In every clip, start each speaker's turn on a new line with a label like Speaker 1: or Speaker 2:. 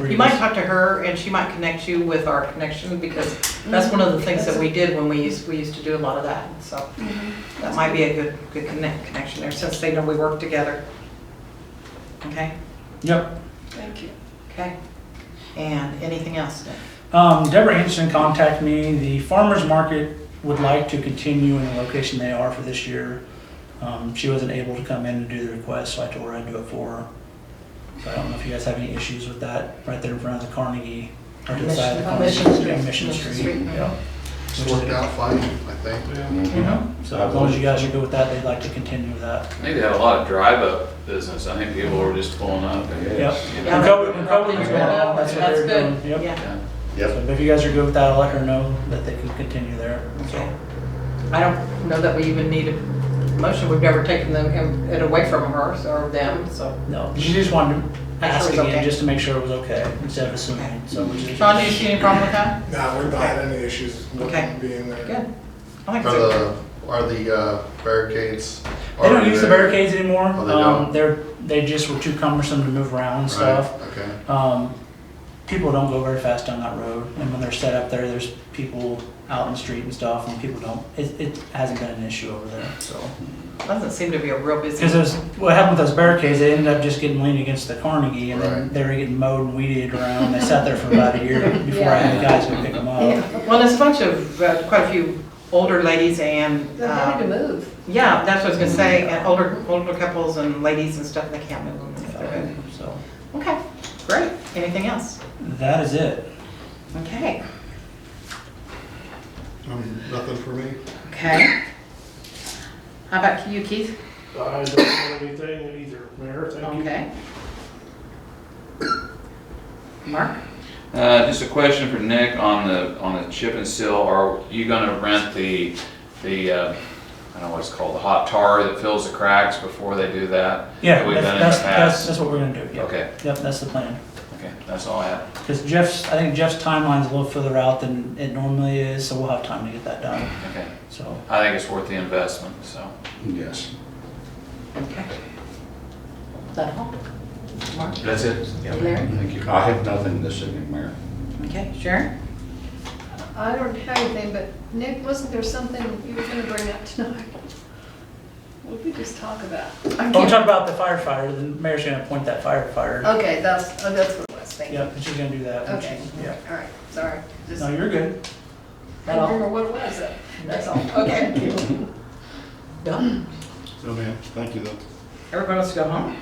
Speaker 1: You might talk to her and she might connect you with our connection because that's one of the things that we did when we used, we used to do a lot of that. So that might be a good, good connect, connection there since they know we work together. Okay,
Speaker 2: Yep.
Speaker 3: Thank you.
Speaker 1: okay. And anything else? Nick?
Speaker 2: Um, Deborah Anderson contacted me. The farmer's market would like to continue in the location they are for this year. Um, she wasn't able to come in to do the request, so I told her I'd do it for her. So I don't know if you guys have any issues with that, right there in front of the Carnegie, or to the side of the Carnegie.
Speaker 1: Mission Street.
Speaker 2: yeah, Mission
Speaker 1: Mission
Speaker 2: Street,
Speaker 1: Street.
Speaker 2: yeah.
Speaker 4: It's worked out fine, I think.
Speaker 2: So as long as you guys are good with that, they'd like to continue with that.
Speaker 5: I think they had a lot of drive-up business. I think people were just pulling up.
Speaker 2: Yep.
Speaker 1: Yeah.
Speaker 2: And COVID, and COVID was going on, that's what they were
Speaker 1: That's
Speaker 2: doing.
Speaker 1: good.
Speaker 2: Yep.
Speaker 1: Yeah,
Speaker 2: So if you guys are good with that, I'll let her know that they can continue there.
Speaker 1: okay. I don't know that we even need a motion. We've never taken them, him- it away from her or them, so.
Speaker 2: No, she just wanted to
Speaker 1: Make sure
Speaker 2: ask
Speaker 1: it's
Speaker 2: again,
Speaker 1: okay.
Speaker 2: just to make sure it was okay, instead of assuming, so which is.
Speaker 1: Sean, do you see any problem with that?
Speaker 6: No, we've not had any issues with
Speaker 1: Okay.
Speaker 6: them being there.
Speaker 1: Good. I like
Speaker 4: Are
Speaker 1: it.
Speaker 4: the, are the uh, barricades?
Speaker 2: They don't use the barricades anymore,
Speaker 4: Oh, they
Speaker 2: um,
Speaker 4: don't?
Speaker 2: they're, they just were too cumbersome to move around and
Speaker 4: Right,
Speaker 2: stuff.
Speaker 4: Okay.
Speaker 2: Um, people don't go very fast down that road, and when they're set up there, there's people out in the street and stuff, and people don't, it, it hasn't been an issue over there, so.
Speaker 1: Doesn't seem to be a real busy.
Speaker 2: Because those, what happened with those barricades, they ended up just getting leaned against the Carnegie, and then
Speaker 4: Right.
Speaker 2: they were getting mowed and weeded around, they sat there for about a year before I had the guys go pick them up.
Speaker 1: Oh, Well, there's a bunch of, uh, quite a few older ladies and,
Speaker 3: They're having
Speaker 1: uh,
Speaker 3: to move.
Speaker 1: yeah, that's what I was gonna say,
Speaker 4: Mm-hmm.
Speaker 1: and older, older couples and ladies and stuff, they can't move them. if they're in.
Speaker 2: So,
Speaker 1: Okay, great. Anything else?
Speaker 2: that is it.
Speaker 1: Okay,
Speaker 4: Um, Nothing for me?
Speaker 1: okay. How about you, Keith?
Speaker 7: I don't have anything either, Mayor, thank you.
Speaker 1: Okay. Mark?
Speaker 5: Uh, just a question for Nick on the, on the chip and seal. Are you gonna rent the, the, uh, I don't know what it's called, the hot tar that fills the cracks before they do that?
Speaker 2: Yeah,
Speaker 5: That we've
Speaker 2: that's,
Speaker 5: done in the
Speaker 2: that's, that's,
Speaker 5: past.
Speaker 2: that's what we're gonna do, yeah.
Speaker 5: Okay,
Speaker 2: Yep, that's the plan.
Speaker 5: okay, that's all I have.
Speaker 2: Because Jeff's, I think Jeff's timeline's a little further out than it normally is, so we'll have time to get that done,
Speaker 5: Okay.
Speaker 2: so.
Speaker 5: I think it's worth the investment, so.
Speaker 4: Yes.
Speaker 1: Okay. Is that all? Mark?
Speaker 5: That's it.
Speaker 1: Larry?
Speaker 8: Thank you. I have nothing this evening, Mayor.
Speaker 1: Okay, Sharon?
Speaker 3: I don't have anything, but Nick, wasn't there something you were gonna bring up tonight? What did we just talk about?
Speaker 2: When we talk about the firefighter, the mayor's gonna appoint that firefighter.
Speaker 3: Okay, that's, oh, that's what it was, thank you.
Speaker 2: Yep, and she's gonna do that. when she-
Speaker 3: Okay.
Speaker 2: Yeah.
Speaker 3: All right, sorry. Just,
Speaker 2: No,
Speaker 3: I
Speaker 2: you're good.
Speaker 3: don't remember what it was, though. that's all, okay.
Speaker 1: Done.
Speaker 4: No, ma'am. Thank you, though.
Speaker 1: Everybody wants to go home?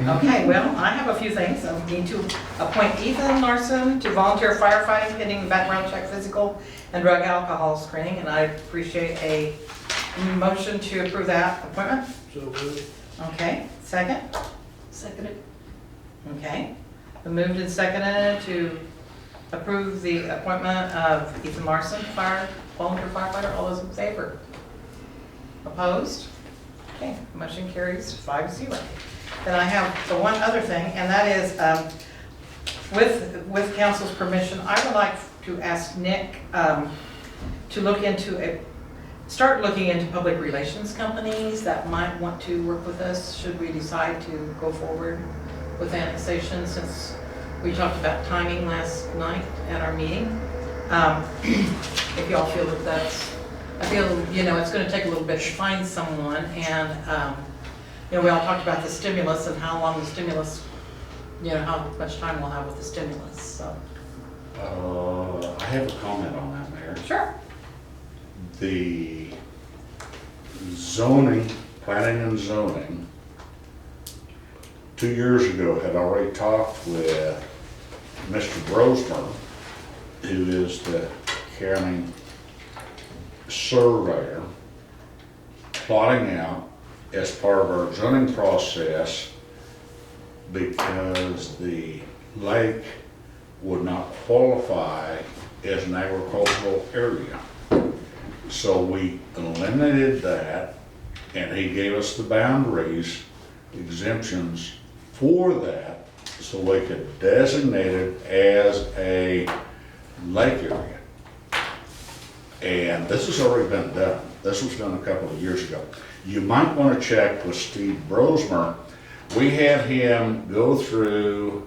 Speaker 1: Okay, well, I have a few things. I need to appoint Ethan Larson to volunteer firefighting, pending background check, physical, and drug alcohol screening, and I appreciate a motion to approve that appointment.
Speaker 7: So moved.
Speaker 1: Okay, second?
Speaker 3: Second it.
Speaker 1: Okay. The moved and seconded to approve the appointment of Ethan Larson, fire, volunteer firefighter. All those in favor? Opposed? Okay, motion carries five zero. Then I have the one other thing, and that is, um, with, with council's permission, I would like to ask Nick um, to look into a, start looking into public relations companies that might want to work with us, should we decide to go forward with annexation, since we talked about timing last night at our meeting. Um, If y'all feel that that's, I feel, you know, it's gonna take a little bit to find someone, and, um, you know, we all talked about the stimulus and how long the stimulus, you know, how much time we'll have with the stimulus, so.
Speaker 8: Uh, I have a comment on that, Mayor.
Speaker 1: Sure.
Speaker 8: The zoning, planning and zoning, two years ago had already talked with Mr. Brosmer, who is the county surveyor, plotting out as part of our zoning process because the lake would not qualify as an agricultural area. So we eliminated that, and he gave us the boundaries, exemptions for that, so we could designate it as a lake area. And this has already been done. This was done a couple of years ago. You might want to check with Steve Brosmer. We had him go through